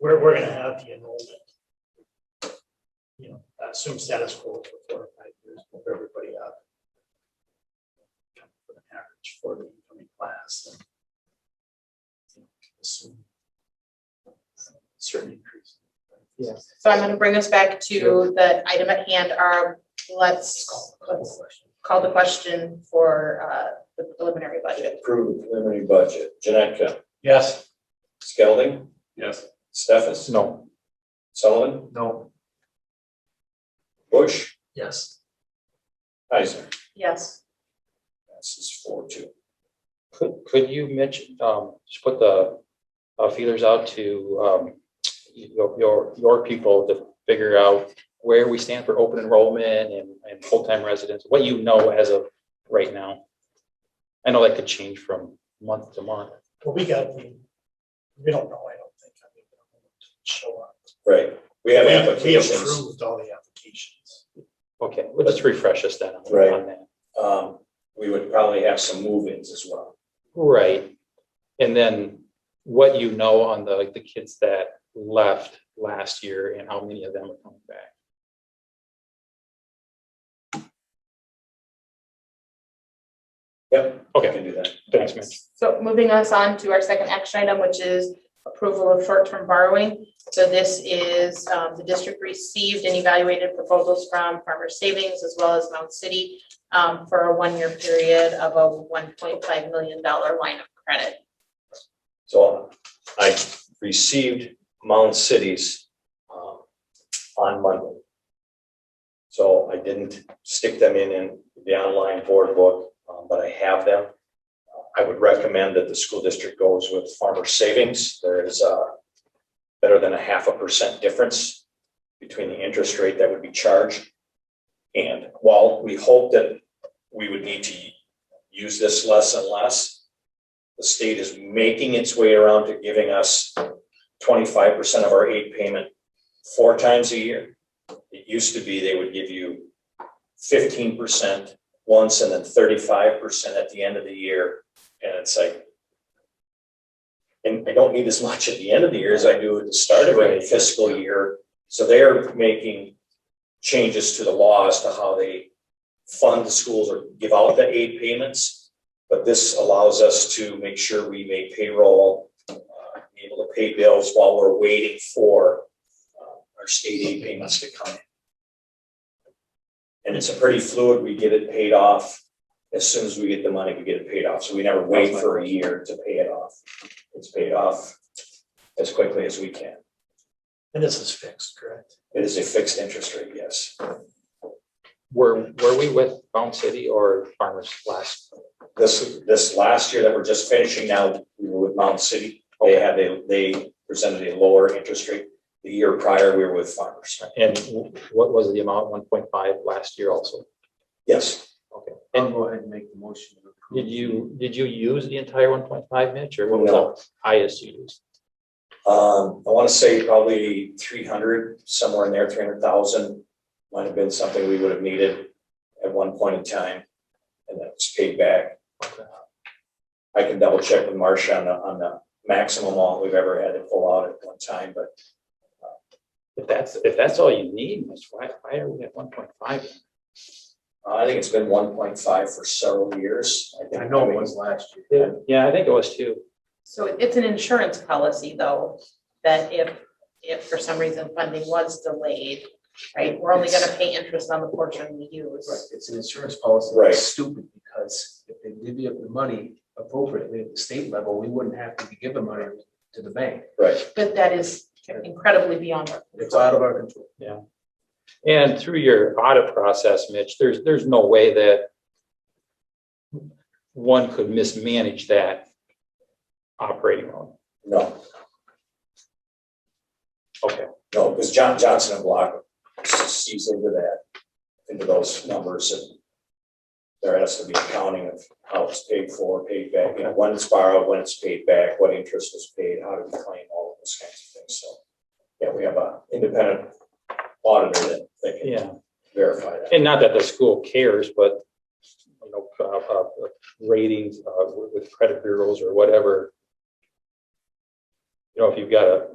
we're, we're gonna have the enrollment. You know, assume status quo for four or five years, move everybody up. For the average for the incoming class and. you know, Assume. Certain increase. Yes. So I'm gonna bring us back to the item at hand, our, let's, let's call the question for, uh, the preliminary budget. Approve the preliminary budget. Janetka? Yes. Skelding? Yes. Stefas? No. Sullivan? No. Bush? Yes. Heiser? Yes. Passes four two. Could, could you mention, um, just put the uh, feelers out to, um, your, your, your people to figure out where we stand for open enrollment and, and full-time residents, what you know as of right now? I know that could change from month to month. Well, we got, the- we don't know, I don't think. I mean, we don't know what to Show up. Right, we have We- We applications. approved all the applications. Okay, well, let's refresh us then on Right. on that. Um, we would probably have some move-ins as well. Right. And then what you know on the, like, the kids that left last year and how many of them are coming back? Yep. We Okay, can do that. thanks, Mitch. So moving us on to our second action item, which is approval of short-term borrowing. So this is, um, the district received and evaluated proposals from Farmer Savings as well as Mount City um, for a one-year period of a one point five million dollar line of credit. So I received Mound Cities um, on Monday. So I didn't stick them in in the online board book, um, but I have them. I would recommend that the school district goes with farmer savings. There is uh better than a half a percent difference between the interest rate that would be charged. And while we hope that we would need to use this less and less, the state is making its way around to giving us twenty-five percent of our aid payment four times a year. It used to be they would give you fifteen percent once and then thirty-five percent at the end of the year. And it's like, and I don't need as much at the end of the year as I do at the start of every Right. fiscal year. So they are making changes to the law as to how they fund the schools or give out the aid payments. But this allows us to make sure we make payroll, uh, be able to pay bills while we're waiting for uh, our state aid payments to come in. And it's a pretty fluid, we get it paid off. As soon as we get the money, we get it paid off. So we never wait for a year to pay it off. It's paid off as quickly as we can. And this is fixed, correct? It is a fixed interest rate, yes. Were, were we with Bound City or Farmers last? This, this last year that we're just finishing now, we were with Mount City. Oh, They had, a they presented a lower interest rate. The year prior, we were with farmers. And what was the amount, one point five last year also? Yes, Okay. I'll And go ahead and make the motion. to approve. did you, did you use the entire one point five, Mitch, or what was No. the highest you used? um, I want to say probably three hundred, somewhere in there, three hundred thousand. Might have been something we would have needed at one point in time. And that was paid back. Okay. I can double check with Marcia on the, on the maximum amount we've ever had to pull out at one time, but If that's, if that's all you need, Mitch, why, why are we at one point five? uh, I think it's been one point five for several years. think- I know it was last year. Yeah, I think it was too. So it- it's an insurance policy though, that if, if for some reason funding was delayed, right, we're only gonna pay interest on the portion we Right, use. it's an insurance policy. Right. It's stupid because if they divvy up the money appropriately at the state level, we wouldn't have to be giving money to the bank. Right. But that is incredibly beyond our It's out of our control. And through your audit process, Mitch, there's, there's no way that one could mismanage that operating loan. No, Okay, no, because John Johnson and Block sees into that, into those numbers and there has to be accounting of how it's paid for, paid back, you know, when it's borrowed, when it's paid back, what interest was paid, how do we claim all of those kinds of things, so. Yeah, we have a independent auditor that, that can yeah. verify that. And not that the school cares, but, you know, uh, uh, ratings, uh, with with credit bureaus or whatever. You know, if you've got a